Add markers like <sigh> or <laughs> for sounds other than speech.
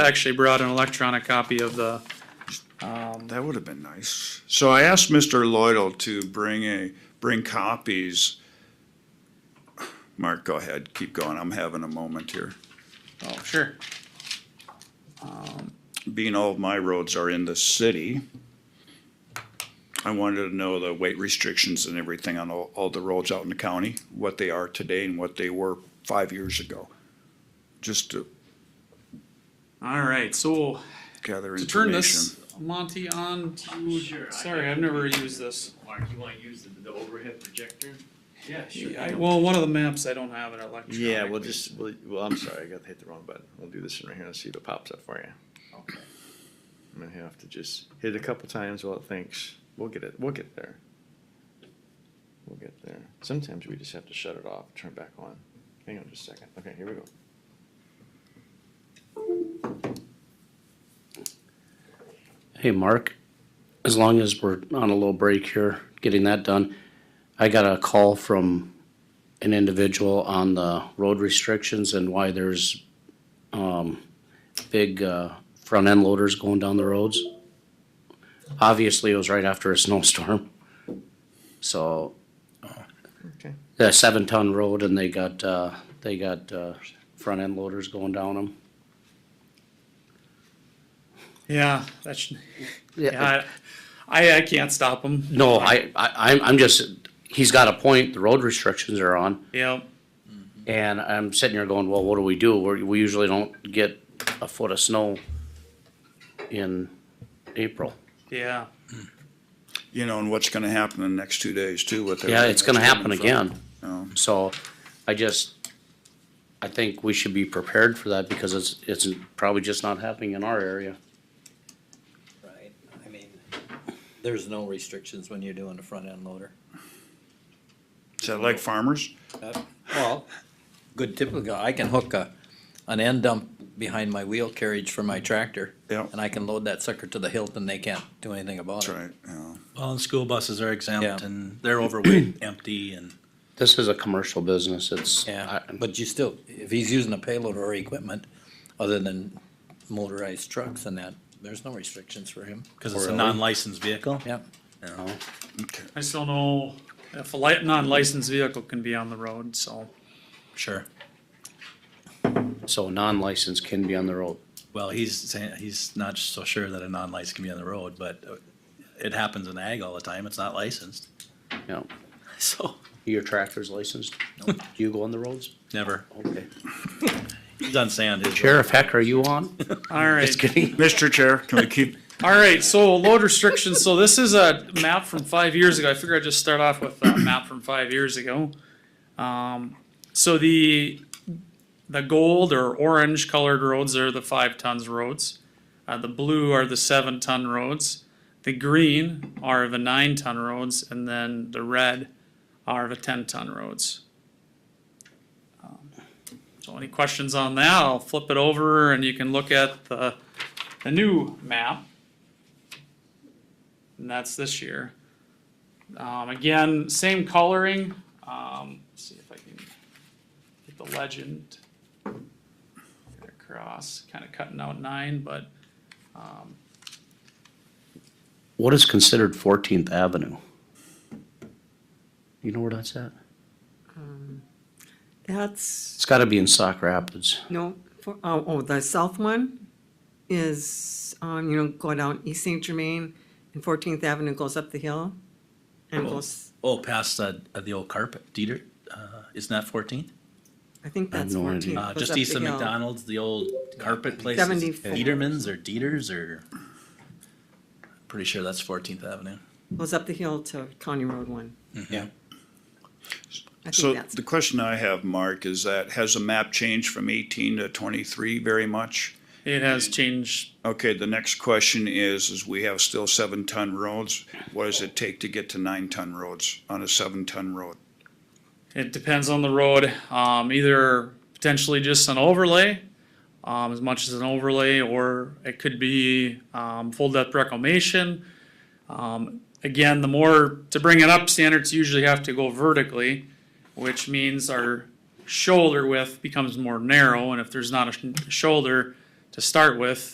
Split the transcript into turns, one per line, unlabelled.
I actually brought an electronic copy of the,
That would have been nice. So I asked Mr. Lloydell to bring a, bring copies. Mark, go ahead, keep going, I'm having a moment here.
oh, sure.
Being all of my roads are in the city, I wanted to know the weight restrictions and everything on all, all the roads out in the county, what they are today and what they were five years ago. Just to
All right, so
gather
to turn
information.
this, Monty, on
Sure,
to,
I
sorry,
can-
I've never used this.
Mark, you wanna use the, the overhead projector? Yeah,
I- Well, one of the maps, I don't have it electronically.
Yeah, we'll just, we'll, well, I'm sorry, I got, hit the wrong button. We'll do this one right here and see if it pops up for you.
Okay.
I'm gonna have to just hit it a couple times while it thinks. We'll get it, we'll get there. We'll get there. Sometimes we just have to shut it off, turn it back on. Hang on just a second. Okay, here we go.
Hey, Mark, as long as we're on a little break here, getting that done, I got a call from an individual on the road restrictions and why there's, um, big, uh, front end loaders going down the roads. Obviously, it was right after a <laughs> snowstorm. So,
Okay.
the seven ton road and they got, uh, they got, uh, front end loaders going down them.
Yeah, that's, yeah, I, I- I can't stop them,
No, I, I, I'm, I'm just, he's got a point, the road restrictions are on.
yep.
And I'm sitting here going, well, what do we do? We're, we usually don't get a foot of snow in April.
Yeah,
You know, and what's gonna happen in the next two days too with.
Yeah, it's gonna
everything
happen
that's coming
again.
from- Um,
So I just, I think we should be prepared for that because it's, it's probably just not happening in our area.
Right, I mean, there's no restrictions when you're doing a front end loader.
Is that like farmers?
Uh, Well, good typical, I can hook a, an end dump behind my wheel carriage for my tractor.
Yeah.
And I can load that sucker to the hilt and they can't do anything about
That's
it.
right, yeah.
Well, and school buses are exempt
Yeah.
and they're overweight, empty and.
This is a commercial business. It's,
Yeah,
I-
but you still, if he's using a payload or equipment, other than motorized trucks and that, there's no restrictions for him.
Cause it's a
Really?
non-licensed vehicle.
Yeah,
I just don't know if a li- non-licensed vehicle can be on the road, so.
Sure.
so non-licensed can be on the road.
Well, he's saying, he's not so sure that a non-licensed can be on the road, but uh, it happens in ag all the time. It's not licensed. <laughs>
Yeah.
So,
Your tractor's licensed? Do you go on the roads?
never.
Okay.
He's on sand. his road.
Sheriff Heck, are you <laughs> on?
All right.
Just kidding.
Mr. Chair, can we keep
All right, so load restrictions, so this is a map from five years ago, I figure I'd just start off with a map from five years ago. Um, so the, the gold or orange colored roads are the five tons roads. Uh, the blue are the seven ton roads, the green are the nine ton roads, and then the red are the ten ton roads. Um, So any questions on that, I'll flip it over and you can look at the the new map. And that's this year. Um, again, same coloring. Um, let's see if I can get the legend. Get across, kind of cutting out nine, but
What is considered Fourteenth Avenue? You know where that's at?
That's,
It's gotta be in Sauk Rapids.
no, for, oh, oh, the south one is, um, you know, go down East Saint Germain and Fourteenth Avenue goes up the hill and goes,
Oh, past the, the old carpet, Dieter, uh, isn't that fourteen?
I think
I have
that's
no idea.
fourteen.
Uh, just east of McDonald's, the old carpet place. is it
74.
Dieterman's or Dieter's or? Pretty sure that's Fourteenth Avenue.
Goes up the hill to County Road one.
Mm-hmm.
yeah.
I
So
think that's,
the question I have, Mark, is that has the map changed from eighteen to twenty-three very much?
it has changed.
Okay, the next question is, is we have still seven-ton roads. What does it take to get to nine-ton roads on a seven-ton road?
It depends on the road. Um, either potentially just an overlay, um, as much as an overlay, or it could be um, full depth reclamation. Um, again, the more to bring it up, standards usually have to go vertically, which means our shoulder width becomes more narrow, and if there's not a sh- shoulder, to start with,